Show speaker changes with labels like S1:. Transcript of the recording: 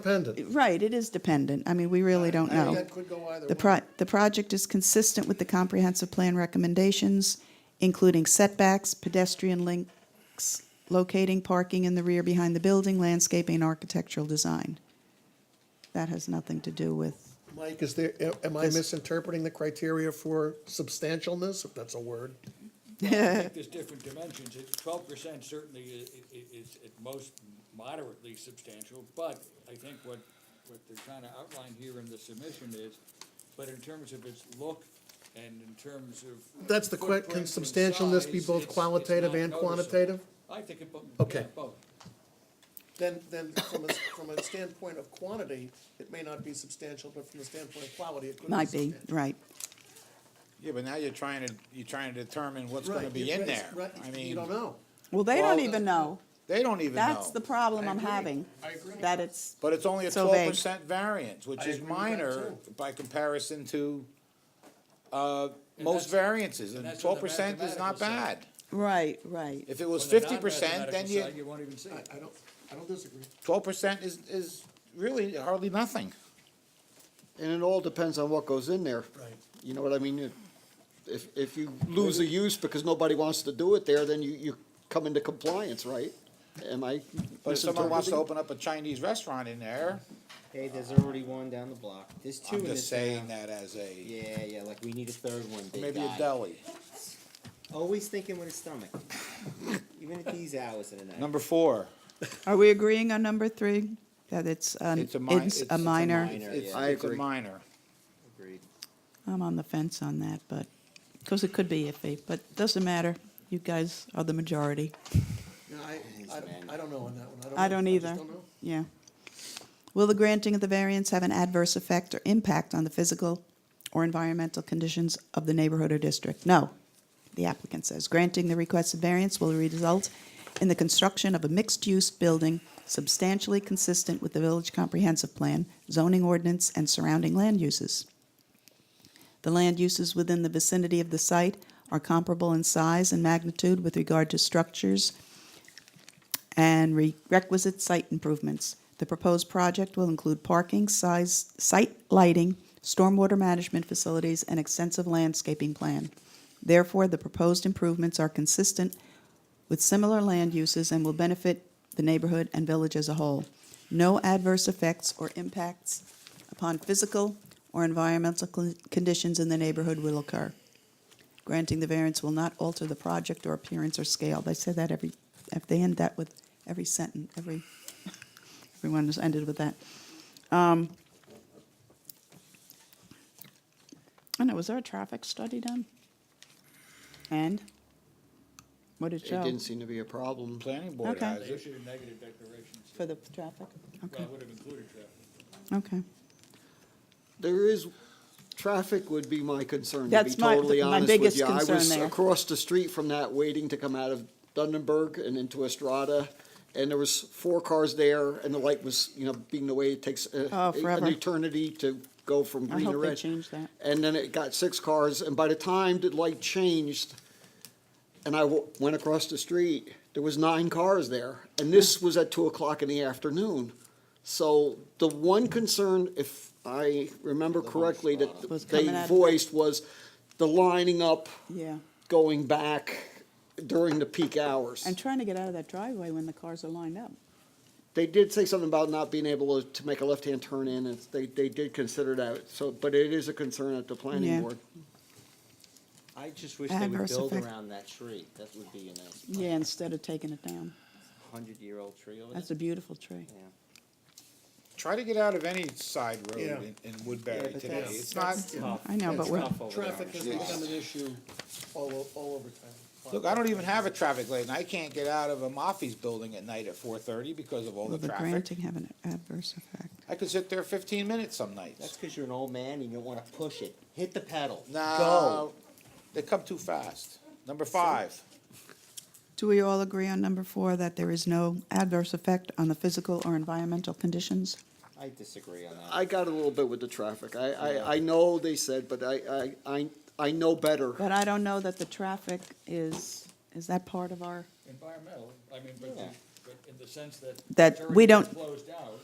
S1: Dependent.
S2: Right, it is dependent. I mean, we really don't
S1: I
S2: know.
S1: mean, that could go either
S2: The
S1: way.
S2: pro, the project is consistent with the comprehensive plan recommendations, including setbacks, pedestrian links, locating parking in the rear behind the building, landscaping, and architectural design. That has nothing to do with,
S1: Mike, is there, am I
S2: This-
S1: misinterpreting the criteria for substantialness, if that's a word?
S3: I think there's different dimensions. It's twelve percent certainly i- i- is at most moderately substantial, but I think what, what they're trying to outline here in the submission is, but in terms of its look and in terms of.
S1: That's the que-
S3: footprint
S1: can
S3: and
S1: substantialness be
S3: size,
S1: both
S3: it's- it's
S1: qualitative
S3: not
S1: and
S3: noticeable.
S1: quantitative?
S3: I think it, bo- yeah,
S1: Okay.
S3: both.
S1: Then, then from a, from a standpoint of quantity, it may not be substantial, but from the standpoint of quality, it could be
S2: might be,
S1: substantial.
S2: right.
S4: Yeah, but now you're trying to, you're trying to determine what's gonna
S1: Right,
S4: be
S1: you-
S4: in
S1: it's-
S4: there.
S1: Right,
S4: I
S1: you
S4: mean,
S1: don't know.
S2: Well, they
S4: Well,
S2: don't even know.
S4: they don't even know.
S2: That's the problem I'm having.
S1: I agree.
S2: That it's,
S4: But it's only a
S2: So
S4: twelve
S2: vague.
S4: percent variance,
S1: I
S4: which is
S1: agree with that,
S4: minor
S1: too.
S4: by comparison to, uh,
S3: And
S4: most
S3: that's-
S4: variances,
S3: and
S4: and
S3: that's on
S4: twelve
S3: the
S4: percent is not
S3: mathematical side.
S4: bad.
S2: right, right.
S4: If it was
S3: On the
S4: fifty percent, then
S3: non-mathematical
S4: you,
S3: side, You won't even see
S1: I,
S3: it.
S1: I don't, I don't disagree.
S4: twelve percent is, is really hardly nothing.
S5: And it all depends on what goes in there.
S1: Right.
S5: You know what I mean? If- If, if you lose a use because nobody wants to do it there, then you, you come into compliance, right? Am I
S4: But if someone wants to
S5: misinterpreting?
S4: open up a Chinese restaurant in there,
S6: Hey, there's already one down the block. There's 2
S4: I'm
S6: in
S4: just
S6: this
S4: saying
S6: town.
S4: that as a,
S6: Yeah, yeah, like we need a third one. Big
S4: maybe a
S6: guy.
S4: deli.
S6: Always thinking with his stomach, even at these hours of the night.
S4: Number four.
S2: Are we agreeing on number three? That it's, um,
S4: It's a mi-
S2: it's a minor?
S6: minor.
S4: It's,
S6: yeah.
S5: I
S4: it's a
S5: agree.
S4: minor.
S6: Agreed.
S2: I'm on the fence on that, but, because it could be iffy, but doesn't matter. You guys are the majority.
S1: No, I,
S6: man.
S1: I, I don't know on that one.
S2: I don't
S1: know.
S2: either.
S1: just don't know.
S2: Yeah. Will the granting of the variance have an adverse effect or impact on the physical or environmental conditions of the neighborhood or district? No, the applicant says. Granting the requested variance will result in the construction of a mixed-use building substantially consistent with the village comprehensive plan, zoning ordinance, and surrounding land uses. The land uses within the vicinity of the site are comparable in size and magnitude with regard to structures, and re- requisite site improvements. The proposed project will include parking, size, site lighting, stormwater management facilities, and extensive landscaping plan. Therefore, the proposed improvements are consistent with similar land uses and will benefit the neighborhood and village as a whole. No adverse effects or impacts upon physical or environmental con- conditions in the neighborhood will occur. Granting the variance will not alter the project or appearance or scale. They say that every, if they end that with every sentence, every, everyone has ended with that. Um, I know, was there a traffic study done? And? What did it
S5: It
S2: show
S5: didn't seem to be a problem.
S4: Planning board
S2: Okay.
S4: has
S3: They
S4: it.
S3: issued a negative declaration, so-
S2: for the traffic?
S3: well,
S2: Okay,
S3: it would have included that.
S2: okay.
S5: There is, traffic would be my concern, to be
S2: That's my-
S5: totally
S2: my
S5: honest
S2: biggest
S5: with you. I
S2: concern
S5: was
S2: there.
S5: across the street from that, waiting to come out of Dunenberg and into Estrada, and there was four cars there, and the light was, you know, being the way it takes uh,
S2: Oh, forever.
S5: an eternity to go from
S2: I
S5: green to
S2: hope they
S5: red.
S2: change that.
S5: And then it got six cars, and by the time the light changed, and I w- went across the street, there was nine cars there, and this was at two o'clock in the afternoon. So the one concern, if I remember correctly,
S2: Was
S5: that they
S2: coming out of-
S5: voiced was the lining up,
S2: Yeah,
S5: going back during the peak hours.
S2: and trying to get out of that driveway when the cars are lined up.
S5: They did say something about not being able to, to make a left-hand turn in, and they, they did consider that, so, but it is a concern at the
S2: Yeah.
S5: planning board.
S6: I just wish they would
S2: Adverse
S6: build
S2: effect.
S6: around that tree. That would be a nice
S2: Yeah, instead of taking it down.
S6: hundred-year-old tree over there.
S2: That's a beautiful tree.
S6: yeah.
S4: Try to get out of any side
S1: Yeah.
S4: road in, in Woodbury
S6: but
S4: today.
S6: that's-
S4: It's not,
S6: Tough.
S2: I know,
S6: It's
S2: but we're-
S6: tough over there.
S1: Traffic has become an issue all, o- all over town.
S4: look, I don't even have a traffic light and I can't get out of a Mafi's building at night at four thirty because of all
S2: Will
S4: the
S2: the
S4: traffic.
S2: granting have an adverse effect?
S4: I could sit there fifteen minutes some nights.
S6: That's because you're an old man and you don't want to push it. Hit the pedal.
S4: No,
S6: Go.
S4: they come too fast. Number five,
S2: Do we all agree on number four, that there is no adverse effect on the physical or environmental conditions?
S6: I disagree on that.
S5: I got a little bit with the traffic. I, I, I know they said, but I, I, I, I know better.
S2: But I don't know that the traffic is, is that part of our,
S3: Environmental, I mean, but, the-
S6: Yeah.
S3: but in the sense that.
S2: That
S3: it's
S2: we
S3: already been
S2: don't-
S3: Closed out.